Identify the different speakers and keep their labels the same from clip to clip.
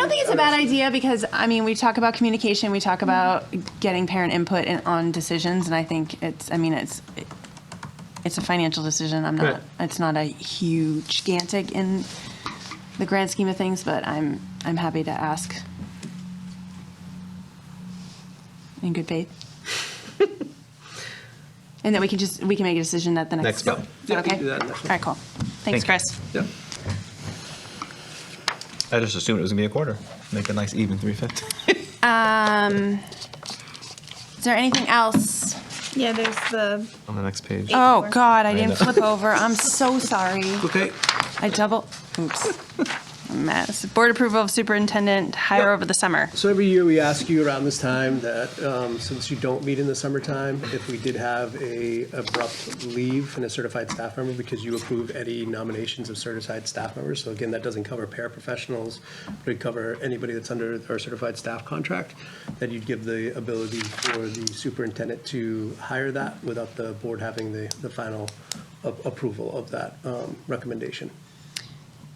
Speaker 1: a bad idea because, I mean, we talk about communication, we talk about getting parent input in, on decisions, and I think it's, I mean, it's, it's a financial decision. I'm not,
Speaker 2: Right.
Speaker 1: it's not a huge, gigantic in the grand scheme of things, but I'm, I'm happy to ask in good faith. And then we can just, we can make a decision at the next.
Speaker 2: Next month.
Speaker 1: Is that
Speaker 2: Yeah, we can
Speaker 1: okay?
Speaker 2: do that
Speaker 1: All
Speaker 2: next month.
Speaker 1: right, cool. Thanks,
Speaker 3: Thank you.
Speaker 1: Chris.
Speaker 2: Yep.
Speaker 3: I just assumed it was gonna be a quarter. Make a nice even three fifty.
Speaker 1: Is there anything else?
Speaker 4: Yeah, there's the,
Speaker 3: On the next page.
Speaker 1: Oh, God, I didn't
Speaker 3: Amanda.
Speaker 1: flip over. I'm so sorry.
Speaker 2: Okay.
Speaker 1: I double, oops. Mess. Board approval of superintendent hire
Speaker 2: Yep.
Speaker 1: over the summer.
Speaker 2: So every year we ask you around this time that, um, since you don't meet in the summertime, if we did have a abrupt leave from a certified staff member, because you approve any nominations of certified staff members. So again, that doesn't cover paraprofessionals, but it cover anybody that's under our certified staff contract, that you'd give the ability for the superintendent to hire that without the board having the, the final a- approval of that um, recommendation.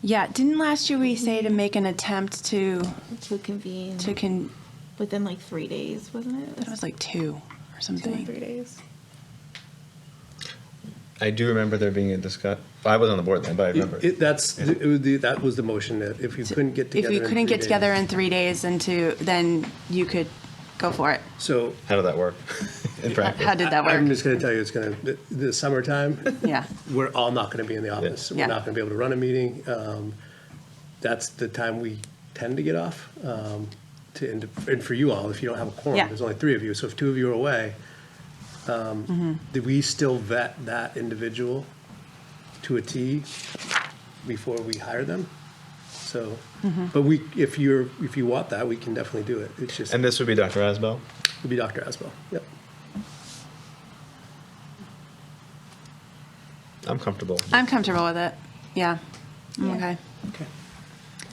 Speaker 1: Yeah, didn't last year we say to make an attempt to,
Speaker 4: to convene
Speaker 1: to con,
Speaker 4: within like three days, wasn't it?
Speaker 1: that was like two or
Speaker 4: Two or three
Speaker 1: something.
Speaker 4: days.
Speaker 3: I do remember there being a discuss. I was on the board then, but I remember.
Speaker 2: It- That's, it would be- that was the motion, that if you couldn't get
Speaker 1: If
Speaker 2: together.
Speaker 1: you
Speaker 2: in
Speaker 1: couldn't
Speaker 2: three
Speaker 1: get
Speaker 2: days-
Speaker 1: together in three days and to, then you could go for it.
Speaker 2: So
Speaker 3: How did that work in practice?
Speaker 1: How did that
Speaker 2: I'm
Speaker 1: work?
Speaker 2: just going to tell you, it's going to, the summertime,
Speaker 1: Yeah.
Speaker 2: we're all not going to be in the office.
Speaker 1: Yeah.
Speaker 2: We're not going to be able to run a meeting. Um, That's the time we tend to get off. um, To, and and for you all, if you don't have a quorum,
Speaker 1: Yeah.
Speaker 2: there's only three of you, so if two of you are away,
Speaker 1: Mm-hmm.
Speaker 2: um, do we still vet that individual to a T before we hire them? So,
Speaker 1: Mm-hmm.
Speaker 2: but we, if you're, if you want that, we can definitely do it. It's just,
Speaker 3: And
Speaker 2: it'll
Speaker 3: this would be Dr. Asbell.
Speaker 2: be Dr. Asbell. Yep.
Speaker 3: I'm comfortable.
Speaker 1: I'm comfortable with it. Yeah. I'm
Speaker 4: Yeah.
Speaker 1: Okay.
Speaker 2: Okay.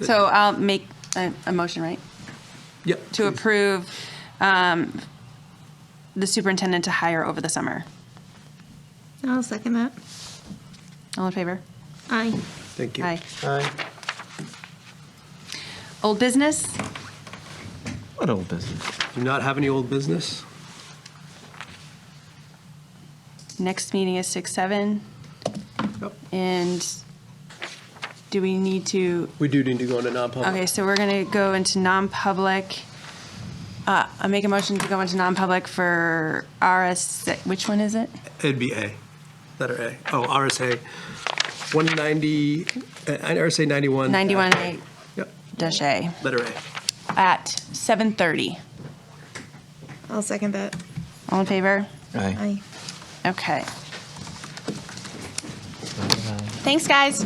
Speaker 1: So I'll make a, a motion, right?
Speaker 2: Yep.
Speaker 1: To approve, um, the superintendent to hire over the summer.
Speaker 4: I'll second that.
Speaker 1: All in favor?
Speaker 4: Aye.
Speaker 2: Thank you.
Speaker 1: Aye.
Speaker 3: Hi.
Speaker 1: Old business?
Speaker 3: What old business?
Speaker 2: Do you not have any old business?
Speaker 1: Next meeting is six, seven,
Speaker 2: Yep.
Speaker 1: and do we need to,
Speaker 2: We do need to go into non-public.
Speaker 1: okay, so we're gonna go into non-public. Uh, I make a motion to go into non-public for RS, which one is it?
Speaker 2: It'd be A, letter A. Oh, RSA 190, uh, RSA 91.
Speaker 1: Ninety-one A
Speaker 2: Yep,
Speaker 1: dash A
Speaker 2: letter A.
Speaker 1: at seven thirty.
Speaker 4: I'll second that.
Speaker 1: All in favor?
Speaker 3: Hi.
Speaker 4: Aye.
Speaker 1: Okay. Thanks, guys.